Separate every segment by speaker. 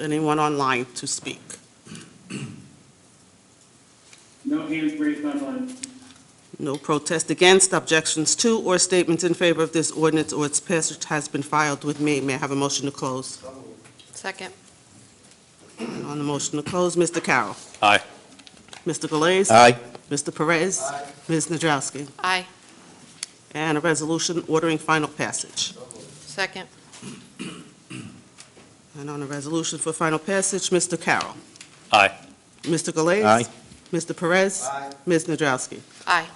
Speaker 1: anyone online to speak?
Speaker 2: No hands raised online.
Speaker 1: No protest against, objections to, or statements in favor of this ordinance or its passage has been filed with me. May I have a motion to close?
Speaker 3: Second.
Speaker 1: And on the motion to close, Mr. Carroll.
Speaker 4: Aye.
Speaker 1: Mr. Galais.
Speaker 4: Aye.
Speaker 1: Mr. Perez. Ms. Nadrowski.
Speaker 3: Aye.
Speaker 1: And a resolution ordering final passage.
Speaker 3: Second.
Speaker 1: And on the resolution for final passage, Mr. Carroll.
Speaker 4: Aye.
Speaker 1: Mr. Galais.
Speaker 4: Aye.
Speaker 1: Mr. Perez. Ms. Nadrowski.
Speaker 3: Aye.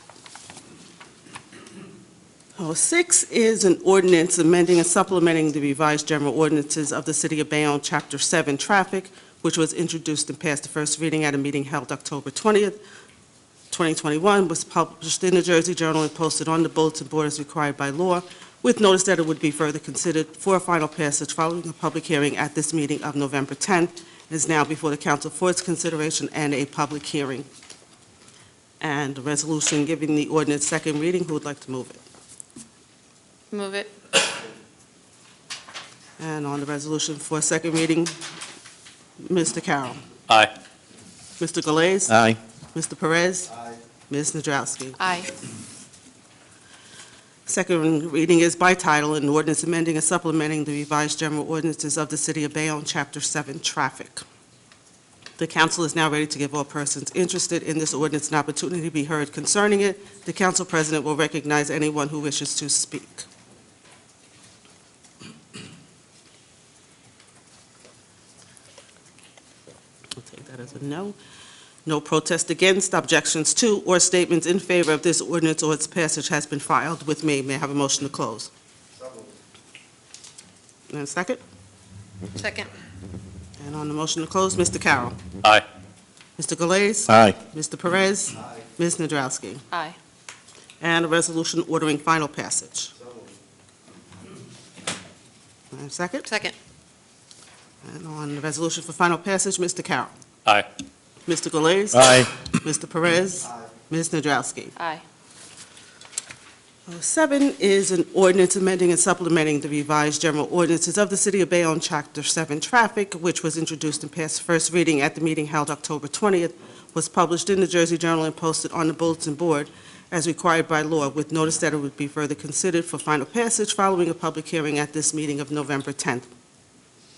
Speaker 1: Oh, Six is an ordinance amending and supplementing the revised general ordinances of the City of Bayonne, Chapter 7, Traffic, which was introduced and passed the first reading at a meeting held October 20th, 2021, was published in the Jersey Journal and posted on the bulletin board as required by law, with notice that it would be further considered for final passage following a public hearing at this meeting of November 10th, and is now before the council for its consideration and a public hearing. And a resolution giving the ordinance second reading, who would like to move it?
Speaker 3: Move it.
Speaker 1: And on the resolution for second reading, Mr. Carroll.
Speaker 4: Aye.
Speaker 1: Mr. Galais.
Speaker 4: Aye.
Speaker 1: Mr. Perez. Ms. Nadrowski.
Speaker 3: Aye.
Speaker 1: Second reading is by title, an ordinance amending and supplementing the revised general ordinances of the City of Bayonne, Chapter 7, Traffic. The council is now ready to give all persons interested in this ordinance an opportunity to be heard concerning it. The council president will recognize anyone who wishes to speak. I'll take that as a no. No protest against, objections to, or statements in favor of this ordinance or its passage has been filed with me. May I have a motion to close? And a second?
Speaker 3: Second.
Speaker 1: And on the motion to close, Mr. Carroll.
Speaker 4: Aye.
Speaker 1: Mr. Galais.
Speaker 4: Aye.
Speaker 1: Mr. Perez. Ms. Nadrowski.
Speaker 3: Aye.
Speaker 1: And a resolution ordering final passage. And a second?
Speaker 3: Second.
Speaker 1: And on the resolution for final passage, Mr. Carroll.
Speaker 4: Aye.
Speaker 1: Mr. Galais.
Speaker 4: Aye.
Speaker 1: Mr. Perez. Ms. Nadrowski.
Speaker 3: Aye.
Speaker 1: Seven is an ordinance amending and supplementing the revised general ordinances of the City of Bayonne, Chapter 7 Traffic, which was introduced and passed first reading at the meeting held October 20th, was published in the Jersey Journal and posted on the bulletin board as required by law, with notice that it would be further considered for final passage following a public hearing at this meeting of November 10th.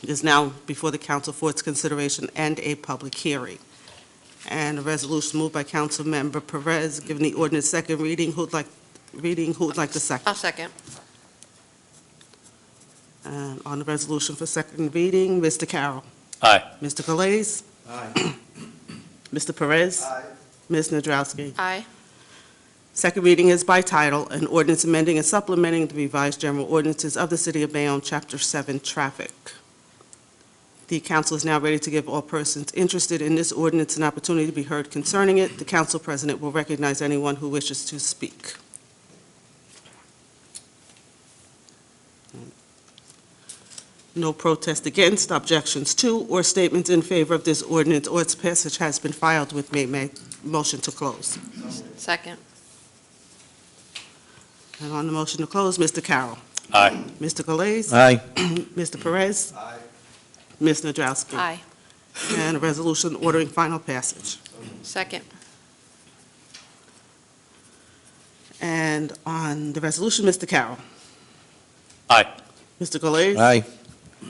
Speaker 1: It is now before the council for its consideration and a public hearing. And a resolution moved by Councilmember Perez, giving the ordinance second reading. Who'd like, reading, who would like the second?
Speaker 3: I'll second.
Speaker 1: And on the resolution for second reading, Mr. Carroll.
Speaker 4: Aye.
Speaker 1: Mr. Galais. Mr. Perez. Ms. Nadrowski.
Speaker 3: Aye.
Speaker 1: Second reading is by title, an ordinance amending and supplementing the revised general ordinances of the City of Bayonne, Chapter 7, Traffic. The council is now ready to give all persons interested in this ordinance an opportunity to be heard concerning it. The council president will recognize anyone who wishes to speak. No protest against, objections to, or statements in favor of this ordinance or its passage has been filed with me. May, motion to close.
Speaker 3: Second.
Speaker 1: And on the motion to close, Mr. Carroll.
Speaker 4: Aye.
Speaker 1: Mr. Galais.
Speaker 4: Aye.
Speaker 1: Mr. Perez. Ms. Nadrowski.
Speaker 3: Aye.
Speaker 1: And a resolution ordering final passage.
Speaker 3: Second.
Speaker 1: And on the resolution, Mr. Carroll.
Speaker 4: Aye.
Speaker 1: Mr. Galais.
Speaker 4: Aye.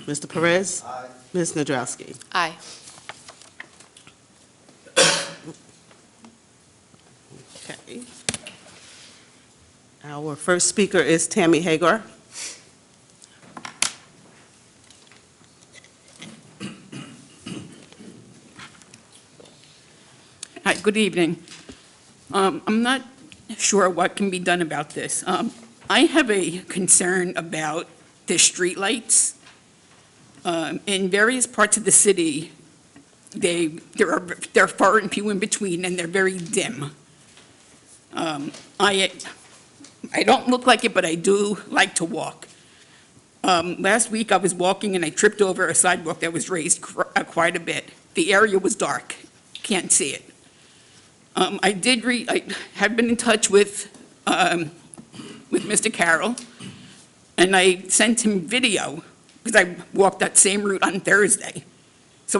Speaker 1: Mr. Perez. Ms. Nadrowski.
Speaker 3: Aye.
Speaker 1: Okay. Our first speaker is Tammy Hagar.
Speaker 5: Hi, good evening. Um, I'm not sure what can be done about this. Um, I have a concern about the streetlights. Um, In various parts of the city, they, there are, they're far and few in between, and they're very dim. Um, I, I don't look like it, but I do like to walk. Um, Last week, I was walking and I tripped over a sidewalk that was raised cr- uh, quite a bit. The area was dark, can't see it. Um, I did re, I have been in touch with, um, with Mr. Carroll, and I sent him video, because I walked that same route on Thursday.